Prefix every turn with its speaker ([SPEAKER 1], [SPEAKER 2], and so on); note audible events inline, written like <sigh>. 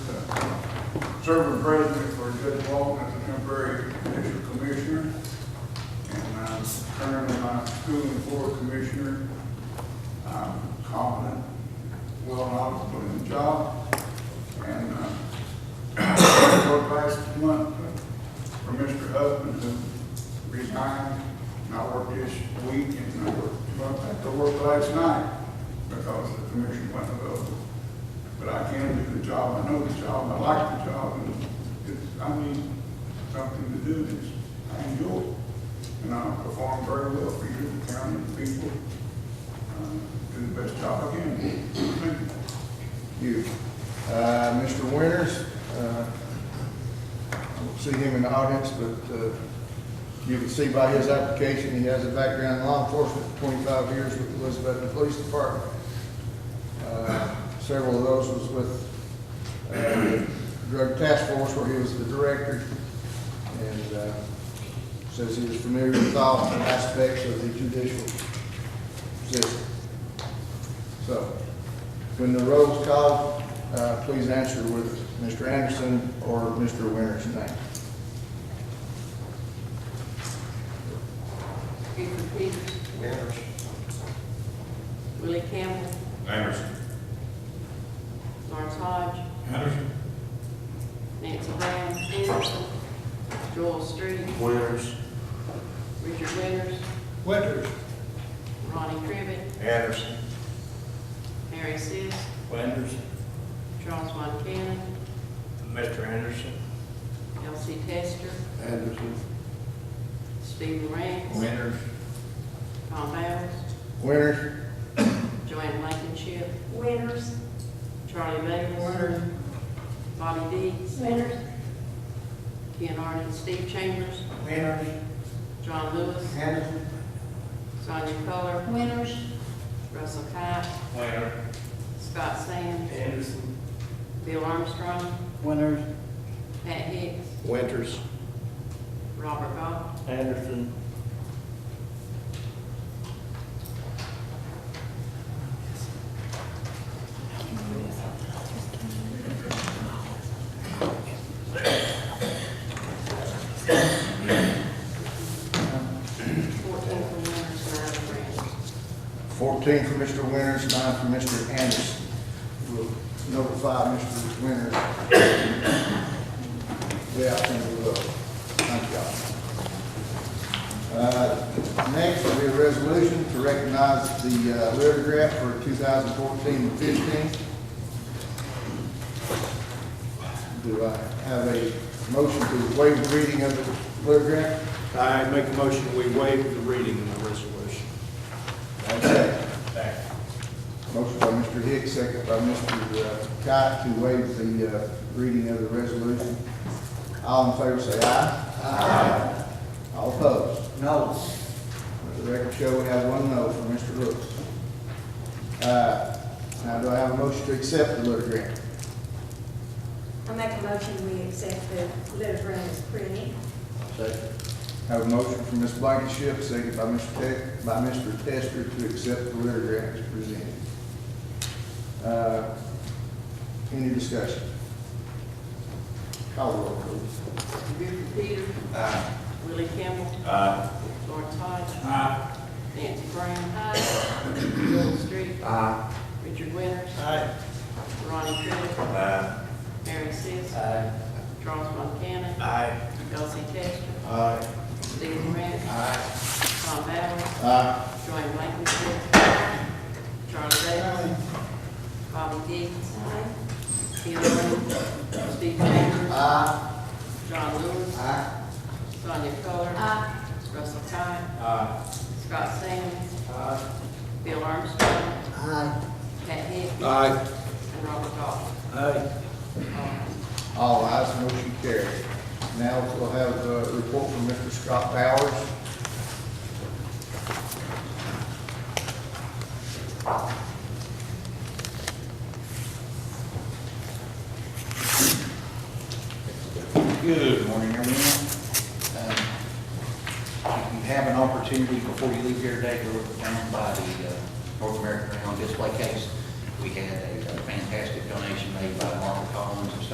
[SPEAKER 1] serving president for Judge Walton as a temporary judicial commissioner. And I'm currently my school and board commissioner. I'm confident, well knowledgeable in the job. And, uh, <clears throat> for last month, uh, for Mr. Husband who resigned. And I worked this week and I worked, I worked last night because the commission went over. But I can do the job, I know the job, I like the job, and it's, I need something to do this. I enjoy it, and I perform very well for you, the county, the people, um, do the best job I can. Thank you.
[SPEAKER 2] You. Uh, Mr. Winters, uh, I don't see him in the audience, but uh, you can see by his application, he has a background in law enforcement, 25 years with the Elizabethton Police Department. Uh, Several of those was with uh, Drug Task Force where he was the director. And uh, says he was familiar with all aspects of the judicial system. So, when the roll's called, uh, please answer with Mr. Anderson or Mr. Winter's name.
[SPEAKER 3] Buford Peters. Willie Campbell.
[SPEAKER 4] Anderson.
[SPEAKER 3] Lawrence Hodge.
[SPEAKER 4] Anderson.
[SPEAKER 3] Nancy Brown. Anderson. Joel Street.
[SPEAKER 4] Winters.
[SPEAKER 3] Richard Winters.
[SPEAKER 4] Winters.
[SPEAKER 3] Ronnie Crivitt.
[SPEAKER 4] Anderson.
[SPEAKER 3] Mary Sis.
[SPEAKER 4] Winters.
[SPEAKER 3] Charles Montana.
[SPEAKER 4] Mr. Anderson.
[SPEAKER 3] Elsie Tester.
[SPEAKER 4] Anderson.
[SPEAKER 3] Stephen Rance.
[SPEAKER 4] Winters.
[SPEAKER 3] Tom Bowers.
[SPEAKER 2] Winters,
[SPEAKER 3] Joanne Blankenship.
[SPEAKER 5] Winters.
[SPEAKER 3] Charlie Bailey. Bonnie Deeds.
[SPEAKER 5] Winters.
[SPEAKER 3] Ken Arden. Steve Chambers.
[SPEAKER 4] Winters.
[SPEAKER 3] John Lewis.
[SPEAKER 4] Anderson.
[SPEAKER 3] Sonia Coler.
[SPEAKER 5] Winters.
[SPEAKER 3] Russell Cott.
[SPEAKER 4] Winters.
[SPEAKER 3] Scott Sands.
[SPEAKER 4] Anderson.
[SPEAKER 3] Bill Armstrong.
[SPEAKER 4] Winters.
[SPEAKER 3] Pat Hicks.
[SPEAKER 4] Winters.
[SPEAKER 3] Robert Goff.
[SPEAKER 4] Anderson.
[SPEAKER 3] Fourteen from Winters,
[SPEAKER 2] 14
[SPEAKER 3] nine from Rance.
[SPEAKER 2] for Mr. Winters, nine for Mr. Anderson. We'll notify Mr. Winters. Yeah, I think we will. Thank y'all. Uh, Next will be a resolution to recognize the uh, Ritter Grant for 2014 and 15. Do I have a motion to waive reading of the Ritter Grant?
[SPEAKER 6] I make a motion, we waive the reading of the resolution.
[SPEAKER 2] Have a second. Motion by Mr. Hicks, second by Mr. Kite to waive the uh, reading of the resolution. All in favor say aye. Aye. All opposed? No. Let the record show we have one no for Mr. Brooks. Uh, Now, do I have a motion to accept the letter grant?
[SPEAKER 5] I make a motion, we accept the letter grant as printed.
[SPEAKER 2] Have a motion from Ms. Blankenship, second by Mr. Te, by Mr. Tester to accept the letter grant as presented. Uh, Any discussion? Call the roll, please.
[SPEAKER 3] Buford Peters. Willie Campbell. Lawrence Hodge. Nancy Brown. Joel Street. Richard Winters. Ronnie Crivitt. Mary Sis. Charles Montana. Elsie Testor. Stephen Rance. Tom Allen.
[SPEAKER 2] Aye.
[SPEAKER 3] Joanne Blankenship. Charlie Bailey. Bobby Dees. Bill Arden. Steve Chambers. John Lewis. Sonia Coler.
[SPEAKER 5] Aye.
[SPEAKER 3] Russell Cott. Scott Sands. Bill Armstrong. Pat Hicks.
[SPEAKER 6] Aye.
[SPEAKER 3] And Robert Goff.
[SPEAKER 6] Aye.
[SPEAKER 2] All ayes, motion carried. Now we'll have a report from Mr. Scott Bowers.
[SPEAKER 7] Good morning, everyone. Um, You have an opportunity before you leave here today to look down by the uh, North American Round Display Case. We had a fantastic donation made by Margaret Collins and stuff